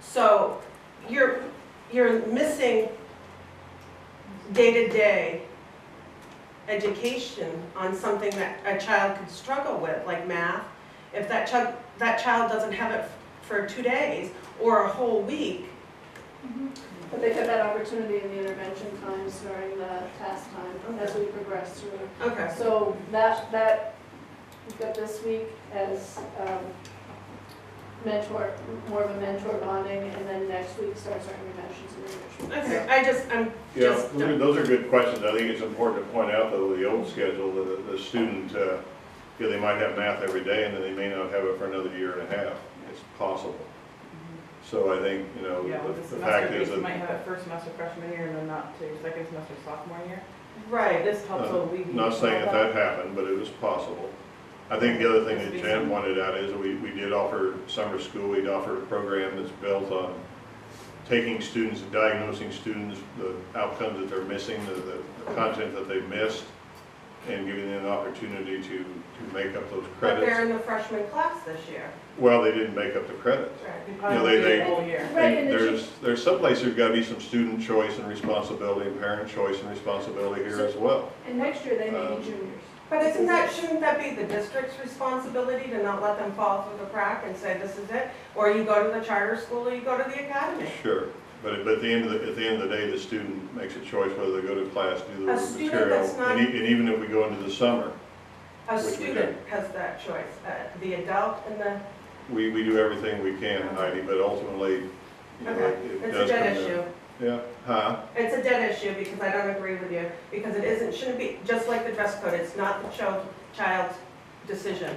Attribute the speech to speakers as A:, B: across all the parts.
A: So you're, you're missing day-to-day education on something that a child could struggle with, like math. If that child, that child doesn't have it for two days or a whole week,
B: Mm-hmm. But they have that opportunity in the intervention times during the task time as we progress through.
A: okay,
B: So that, that, we've got this week as um, mentor, more of a mentor bonding, and then next week starts our interventions and enrichment.
A: okay, I just, I'm
C: Yeah,
A: just,
C: those are- those are good questions. I think it's important to point out, though, with the old schedule, that the- the student, uh, you know, they might have math every day, and then they may not have it for another year and a half. It's possible. So I think, you know,
D: Yeah,
C: the
D: with the
C: the fact
D: semester,
C: is
D: you
C: that,
D: might have it first semester freshman year and then not to second semester sophomore year.
A: right.
D: This helps
C: uh,
D: so we.
C: not saying that that happened, but it was possible. I think the other thing that
D: It's
C: Jan
D: been-
C: pointed out is we, we did offer summer school, we'd offered a program that's built on taking students, diagnosing students, the outcomes that they're missing, the, the the content that they missed, and giving them an opportunity to, to make up those
A: But they're
C: credits.
A: in the freshman class this year.
C: Well, they didn't make up the credits.
A: Right.
D: You
C: You know,
D: probably
C: they-
D: do
C: they-
D: the whole year.
B: Right, and
C: And
B: the
C: there's, there's someplace there's gotta be some student choice and responsibility, and parent choice and responsibility here as well.
B: And next year, they may
C: Um,
B: be juniors.
A: But isn't that, shouldn't that be the district's responsibility to not let them fall through the crack and say, this is it? Or you go to the charter school or you go to the academy?
C: Sure, but at, but at the end of the, at the end of the day, the student makes a choice whether they go to class, do the
A: A student
C: material.
A: that's not-
C: And e- and even if we go into the summer,
A: A
C: Which we
A: student has that choice, uh, the adult and the,
C: we, we do everything we can, Heidi, but ultimately, you know,
A: okay,
C: it it
A: it's a
C: does come
A: dead
C: down.
A: issue.
C: Yeah, huh?
A: It's a dead issue because I don't agree with you, because it isn't, shouldn't be, just like the dress code, it's not the child, child's decision.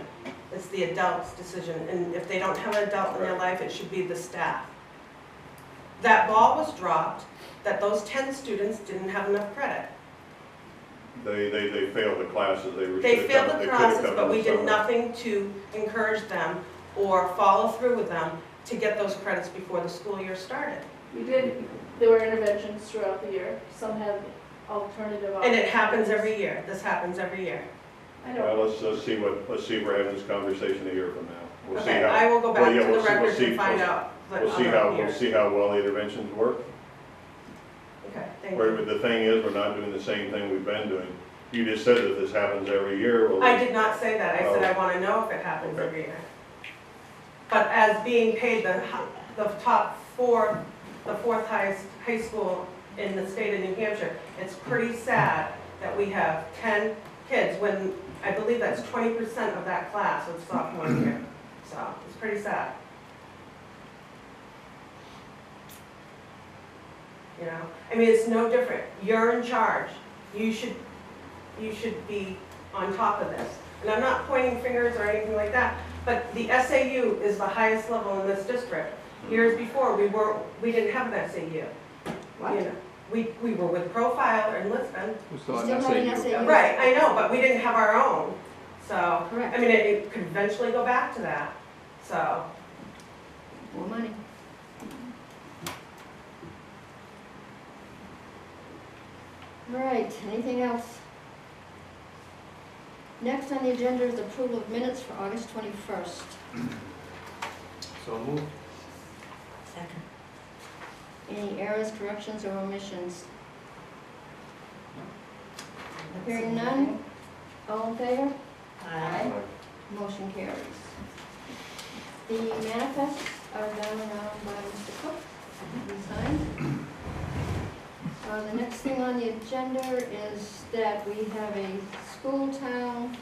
A: It's the adult's decision, and if they don't have an adult in their life, it should be the staff. That ball was dropped, that those ten students didn't have enough credit.
C: They, they, they failed the classes, they were.
A: They
C: should've
A: failed
C: come-
A: the
C: they could've
A: process,
C: come in
A: but
C: the
A: we did
C: summer.
A: nothing to encourage them or follow through with them to get those credits before the school year started.
B: We did, there were interventions throughout the year, some had alternative.
A: And it happens
B: options.
A: every year, this happens every year.
B: I know.
C: Well, let's, let's see what, let's see if we're having this conversation a year from now. We'll see
A: Okay,
C: how,
A: I will go
C: well,
A: back
C: yeah,
A: to the
C: we'll see- we'll
A: records
C: see-
A: and find
C: we'll-
A: out what
C: we'll see
A: other
C: how, we'll
A: years.
C: see how well the interventions work.
A: Okay, thank
C: Where,
A: you.
C: but the thing is, we're not doing the same thing we've been doing. You just said that this happens every year, well.
A: I did not say that, I said I
C: Oh.
A: want to know if it happens
C: Okay.
A: every year. But as being paid the, hi- the top four, the fourth highest high school in the state of New Hampshire, it's pretty sad that we have ten kids when, I believe that's twenty percent of that class of sophomore year. So it's pretty sad. You know, I mean, it's no different. You're in charge. You should, you should be on top of this. And I'm not pointing fingers or anything like that, but the SAU is the highest level in this district. Years before, we were, we didn't have an SAU. you know. We, we were with Profile in Lisbon.
E: We're still
F: Still
E: on
F: having
E: SAU.
F: SAU.
A: Right, I know, but we didn't have our own, so, I
F: Correct,
A: mean, it- it could eventually go back to that, so.
F: more money. All right, anything else? Next on the agenda is approval of minutes for August 21st.
E: So moved.
F: Second. Any errors, corrections, or omissions? Hearing none? All in favor? Aye. Motion carries. The manifests are done around by Mr. Cook, resigned. Uh, the next thing on the agenda is that we have a school town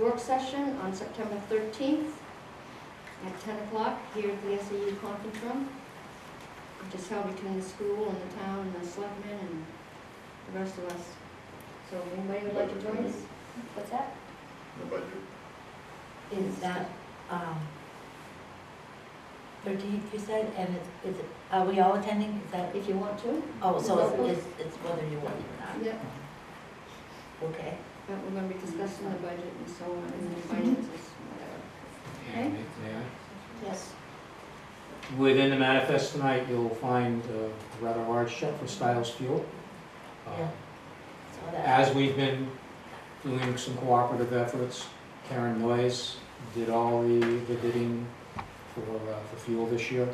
F: work session on September thirteenth at ten o'clock here at the SAU conference room, which is held between the school and the town and the selectmen and the rest of us. So if anybody would like to join us? What's that?
C: The budget.
G: Is that, um, thirteenth, you said, and it's, is it, are we all attending? Is that,
F: If you want to?
G: oh, so it's, it's- it's whether you want it or
F: Yep.
G: not, okay?
F: But we're gonna be discussing the budget and so on, and the finances, whatever. Okay. Yes.
H: uh, Within the manifest tonight, you'll find uh, a rather large check for Stiles Fuel. Uh,
G: Yeah. So that,
H: As we've been doing some cooperative efforts, Karen Noyes did all the the bidding for uh, for fuel this year.